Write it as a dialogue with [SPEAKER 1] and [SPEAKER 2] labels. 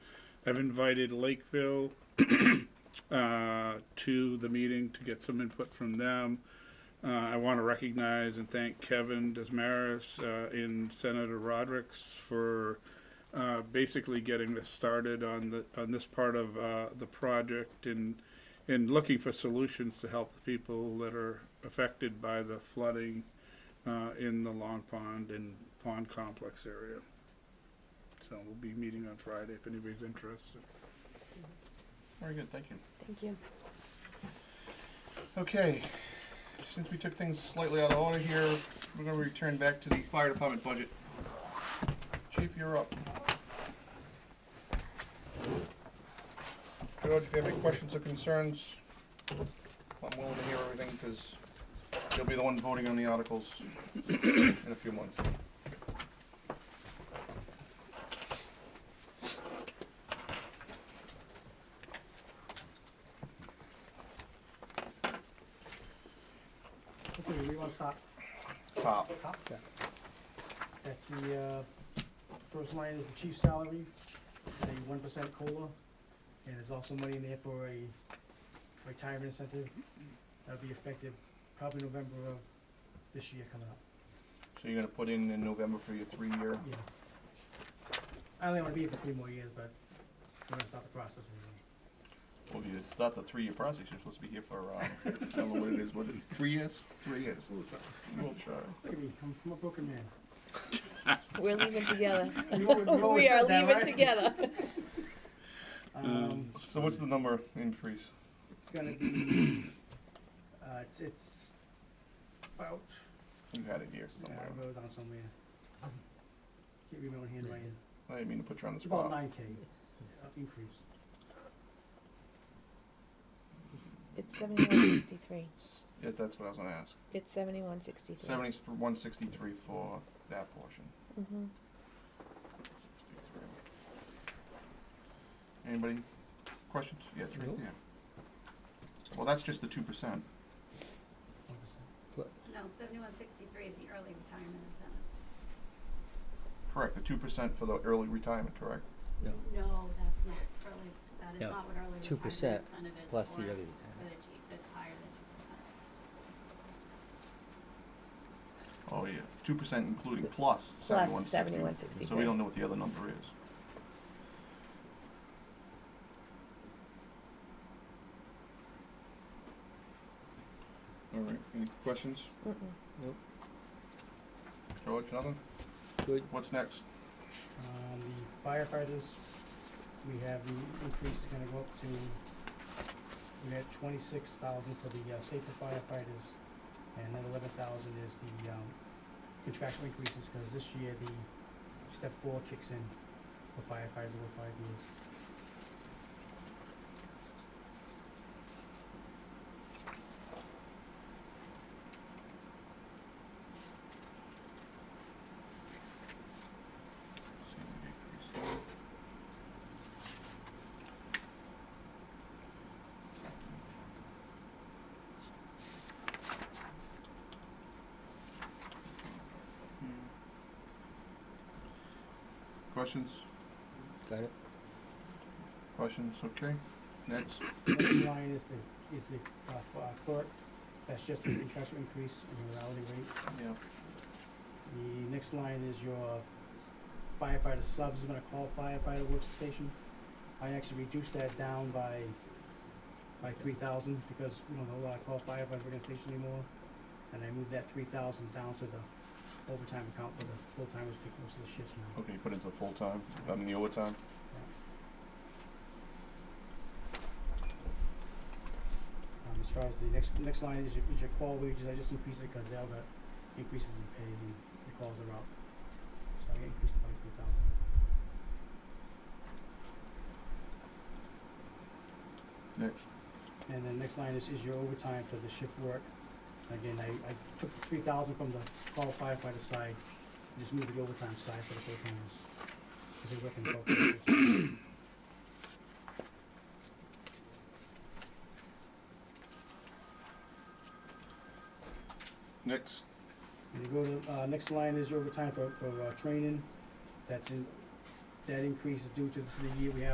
[SPEAKER 1] I've invited Lakeville uh, to the meeting to get some input from them. Uh, I want to recognize and thank Kevin Desmaris uh, and Senator Rodericks for uh, basically getting this started on the on this part of uh, the project and and looking for solutions to help the people that are affected by the flooding uh, in the Long Pond and Pond Complex area. So we'll be meeting on Friday if anybody's interested.
[SPEAKER 2] Very good, thank you.
[SPEAKER 3] Thank you.
[SPEAKER 2] Okay, since we took things slightly out of order here, we're gonna return back to the fire department budget. Chief, you're up. George, if you have any questions or concerns, I'm willing to hear everything, because you'll be the one voting on the articles in a few months.
[SPEAKER 4] Okay, we want to stop.
[SPEAKER 2] Top.
[SPEAKER 4] That's the, uh, first line is the chief's salary, a one percent COLA, and there's also money in there for a retirement incentive. That'll be effective probably November of this year coming up,
[SPEAKER 2] So you're gonna put in in November for your three-year,
[SPEAKER 4] yeah. I only want to be here for three more years, but we're gonna start the process anyway.
[SPEAKER 2] well, if you start the three-year process, you're supposed to be here for, uh, I don't know what it is, what it is, three years? Three years. We'll try. We'll try.
[SPEAKER 4] Look at me, I'm, I'm a broken man.
[SPEAKER 3] We're leaving together.
[SPEAKER 4] We've always- we've always
[SPEAKER 3] we are
[SPEAKER 4] said that,
[SPEAKER 3] leaving
[SPEAKER 4] right?
[SPEAKER 3] together.
[SPEAKER 4] Um,
[SPEAKER 2] So what's the number increase?
[SPEAKER 4] it's gonna be, uh, it's, it's about
[SPEAKER 2] You had it here
[SPEAKER 4] Yeah,
[SPEAKER 2] somewhere.
[SPEAKER 4] I wrote it down somewhere. Can't read my own handwriting.
[SPEAKER 2] I didn't mean to put you on the
[SPEAKER 4] It's about
[SPEAKER 2] spot.
[SPEAKER 4] nine K uh, increase.
[SPEAKER 3] It's seventy-one sixty-three.
[SPEAKER 2] S- Yeah, that's what I was gonna ask.
[SPEAKER 3] It's seventy-one sixty-three.
[SPEAKER 2] Seventy-one sixty-three for that portion.
[SPEAKER 3] Mm-hmm.
[SPEAKER 2] Anybody, questions? Yeah, it's right there. Well, that's just the two percent.
[SPEAKER 4] one percent.
[SPEAKER 5] No, seventy-one sixty-three is the early retirement incentive.
[SPEAKER 2] Correct, the two percent for the early retirement, correct?
[SPEAKER 6] No,
[SPEAKER 5] No, that's not early, that is
[SPEAKER 6] No,
[SPEAKER 5] not what early retirement
[SPEAKER 6] 2%
[SPEAKER 5] incentive is
[SPEAKER 6] plus
[SPEAKER 5] for-
[SPEAKER 6] the other
[SPEAKER 5] For the chief, that's higher than two percent.
[SPEAKER 2] Oh, yeah. Two percent including plus seventy-one
[SPEAKER 3] Plus
[SPEAKER 2] sixty.
[SPEAKER 3] seventy-one
[SPEAKER 2] So we
[SPEAKER 3] sixty-three.
[SPEAKER 2] don't know what the other number is. All right, any questions?
[SPEAKER 6] Nope.
[SPEAKER 2] George, nothing?
[SPEAKER 6] Good.
[SPEAKER 2] What's next?
[SPEAKER 4] Um, the firefighters, we have the increase is gonna go up to, we had twenty-six thousand for the uh, safer firefighters, and another eleven thousand is the, um, contractual increases, cause this year the step four kicks in for firefighters over five years.
[SPEAKER 2] Hmm. Questions?
[SPEAKER 6] Got it?
[SPEAKER 2] Questions, okay. Next,
[SPEAKER 4] Next line is the, is the uh, f- uh, clerk, that's just the contractual increase in your hourly rate.
[SPEAKER 2] yeah.
[SPEAKER 4] The next line is your firefighter subs, is gonna call firefighter workstation. I actually reduced that down by, by three thousand, because we don't have a lot of call firefighter workstation anymore. And I moved that three thousand down to the overtime account for the full-timers, take most of the shifts now.
[SPEAKER 2] Okay, you put into the full-time, I mean the overtime?
[SPEAKER 4] Um, as far as the next, next line is your, is your call wages, I just increased it because they all got increases in pay and the calls are up. So I increased it by three thousand.
[SPEAKER 2] Next.
[SPEAKER 4] And then next line is, is your overtime for the shift work. Again, I, I took three thousand from the call firefighter side, just moved the overtime side for the full timers. Cause they're working twelve hours.
[SPEAKER 2] Next.
[SPEAKER 4] And you go to, uh, next line is your overtime for, for, uh, training. That's in, that increase is due to this is the year we have